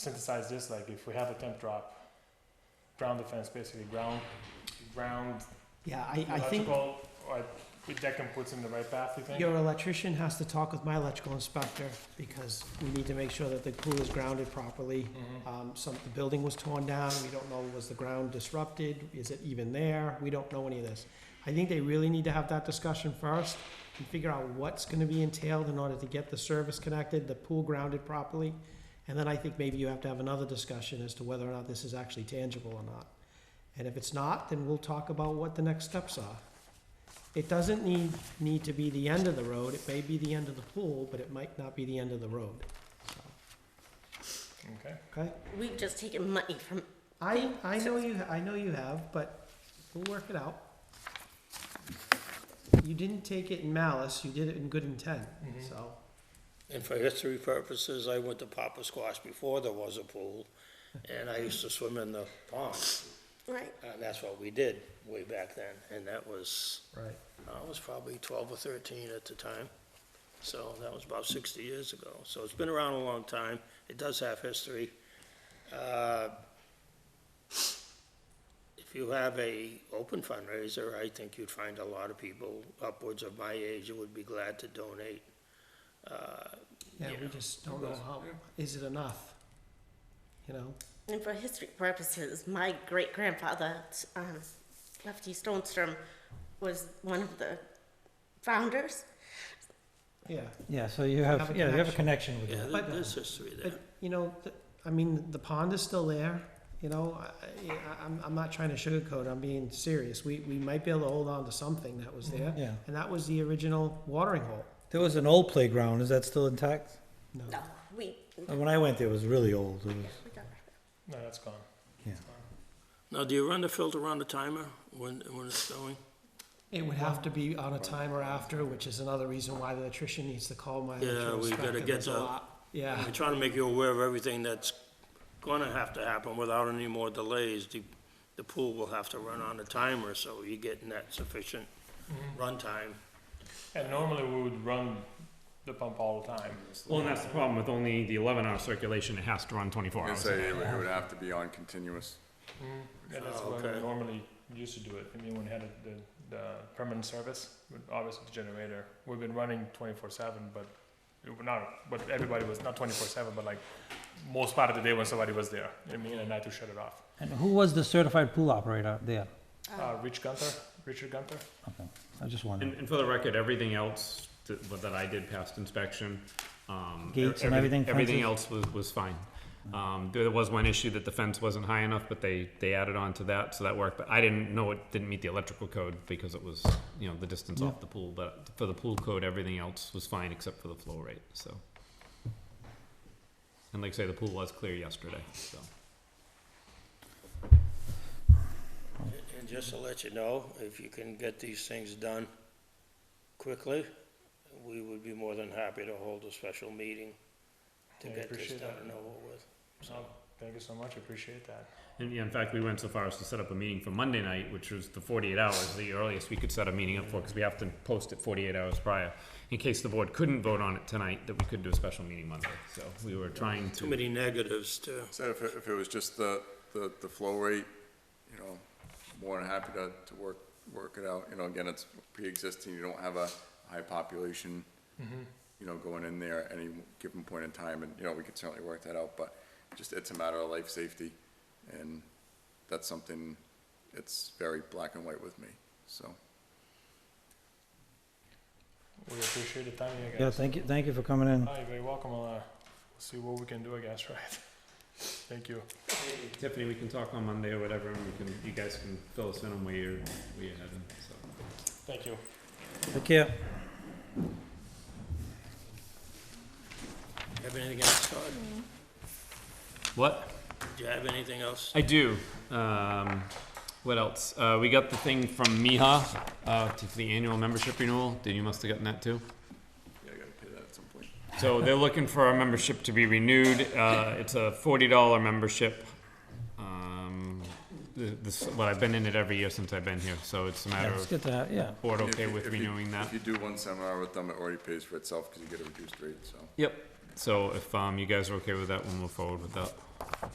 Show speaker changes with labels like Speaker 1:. Speaker 1: synthesize this, like if we have a temp drop, ground defense, basically ground, ground
Speaker 2: Yeah, I, I think
Speaker 1: electrical, or that can put us in the right path, you think?
Speaker 2: your electrician has to talk with my electrical inspector because we need to make sure that the pool is grounded properly.
Speaker 1: Mhm.
Speaker 2: Um, some, the building was torn down, we don't know, was the ground disrupted, is it even there, we don't know any of this. I think they really need to have that discussion first and figure out what's gonna be entailed in order to get the service connected, the pool grounded properly. And then I think maybe you have to have another discussion as to whether or not this is actually tangible or not. And if it's not, then we'll talk about what the next steps are. It doesn't need, need to be the end of the road, it may be the end of the pool, but it might not be the end of the road, so,
Speaker 1: Okay,
Speaker 2: okay?
Speaker 3: We've just taken money from,
Speaker 2: I,
Speaker 3: Thank-
Speaker 2: I know you, I know you have, but we'll work it out. You didn't take it in malice, you did it in good intent,
Speaker 1: Mhm.
Speaker 2: so,
Speaker 4: And for history purposes, I went to Papa Squash before there was a pool, and I used to swim in the pond.
Speaker 3: right,
Speaker 4: And that's what we did way back then, and that was,
Speaker 2: right,
Speaker 4: I was probably twelve or thirteen at the time. So that was about sixty years ago. So it's been around a long time. It does have history. Uh, If you have a open fundraiser, I think you'd find a lot of people upwards of my age who would be glad to donate. Uh,
Speaker 2: yeah, we
Speaker 4: Yeah.
Speaker 2: just don't know how, is it enough? You know,
Speaker 3: and for history purposes, my great grandfather, um, Lefty Stonestrom, was one of the founders.
Speaker 2: yeah,
Speaker 5: Yeah, so you
Speaker 2: Have
Speaker 5: have,
Speaker 2: a
Speaker 5: yeah, you have a connection with
Speaker 4: Yeah,
Speaker 5: it.
Speaker 4: there-
Speaker 2: But-
Speaker 4: there's history there.
Speaker 2: but, you know, th- I mean, the pond is still there, you know, I, I- I'm, I'm not trying to sugarcoat, I'm being serious, we, we might be able to hold on to something that was there,
Speaker 5: Yeah.
Speaker 2: and that was the original watering hole,
Speaker 5: There was an old playground, is that still intact?
Speaker 2: no.
Speaker 3: No, we,
Speaker 5: Uh, When I went there, it was really old. It was,
Speaker 1: no, that's gone.
Speaker 4: Now, do you run the filter on the timer when, when it's going?
Speaker 2: It would have to be on a timer after, which is another reason why the electrician needs to call my
Speaker 4: Yeah,
Speaker 2: electrical
Speaker 4: we gotta
Speaker 2: inspector.
Speaker 4: get
Speaker 2: There's a
Speaker 4: the-
Speaker 2: lot. Yeah,
Speaker 4: I'm trying to make you aware of everything that's gonna have to happen without any more delays. The, the pool will have to run on a timer, so you're getting that sufficient runtime.
Speaker 1: Mm-hmm. And normally we would run the pump all the time.
Speaker 6: Well, and Oh, that's the problem with only the eleven hour circulation, it has to run twenty-four
Speaker 7: And
Speaker 6: hours.
Speaker 7: say it would- it would have to be on continuous.
Speaker 1: Mhm. Yeah, that's
Speaker 4: Oh,
Speaker 1: what we
Speaker 4: okay.
Speaker 1: normally used to do it, I mean, when we had the, the permanent service, with obviously the generator, we've been running twenty-four seven, but it were not, but everybody was, not twenty-four seven, but like, most part of the day when somebody was there, I mean, and I had to shut it off.
Speaker 5: and who was the certified pool operator there?
Speaker 1: Uh, Rich Gunther, Richard Gunther,
Speaker 5: Okay, I just
Speaker 6: And,
Speaker 5: wondered.
Speaker 6: and for the record, everything else that, but that I did passed inspection. um, e-
Speaker 5: Gates and
Speaker 6: every-
Speaker 5: everything,
Speaker 6: Everything
Speaker 5: fences?
Speaker 6: else was, was fine. Um, there was one issue that the fence wasn't high enough, but they, they added on to that, so that worked, but I didn't know it didn't meet the electrical code because it was, you know, the distance off the pool, but for the pool code, everything else was fine except for the flow rate, so. And like I say, the pool was clear yesterday, so.
Speaker 4: And just to let you know, if you can get these things done quickly, we would be more than happy to hold a special meeting to
Speaker 1: Yeah, I
Speaker 4: get this
Speaker 1: appreciate
Speaker 4: done
Speaker 1: that.
Speaker 4: and over with.
Speaker 1: so, thank you so much, appreciate that.
Speaker 6: And yeah, in fact, we went so far as to set up a meeting for Monday night, which was the forty-eight hours, the earliest we could set a meeting up for, because we have to post it forty-eight hours prior. In case the board couldn't vote on it tonight, that we could do a special meeting Monday, so we were trying
Speaker 4: Too
Speaker 6: to.
Speaker 4: many negatives to,
Speaker 7: So if, it- if it was just the, the, the flow rate, you know, more than happy to, to work, work it out. You know, again, it's pre-existing, you don't have a high population, you know, going in there at any given point in time, and, you know, we could certainly work that out, but just, it's a matter of life safety, and that's something, it's very black and white with me, so.
Speaker 1: We appreciate the time, you
Speaker 5: Yeah,
Speaker 1: guys.
Speaker 5: thank you, thank you for coming in.
Speaker 1: Hi, you're very welcome, I'll, uh, we'll see what we can do, I guess, right? Thank you.
Speaker 6: Tiffany, we can talk on Monday or whatever, and we can, you guys can fill us in on where you're, where you're heading, so.
Speaker 1: Thank you.
Speaker 5: Take care.
Speaker 4: have anything else, Todd?
Speaker 6: What?
Speaker 4: Do you have anything else?
Speaker 6: I do. Um, what else? Uh, we got the thing from Miha, uh, to- for the annual membership renewal, Did you must have gotten that too.
Speaker 7: Yeah, I gotta pay that at some point.
Speaker 6: So they're looking for our membership to be renewed. Uh, it's a forty dollar membership. Um, th- this, well, I've been in it every year since I've been here, so it's a matter
Speaker 5: Yeah, It's
Speaker 6: of
Speaker 5: good to have, yeah.
Speaker 6: board
Speaker 7: If
Speaker 6: okay
Speaker 7: you-
Speaker 6: with
Speaker 7: if you-
Speaker 6: renewing that.
Speaker 7: If you do one seminar with them, it already pays for itself, because you get a reduced rate, so.
Speaker 6: Yep. so if um, you guys are okay with that, we'll move forward with that.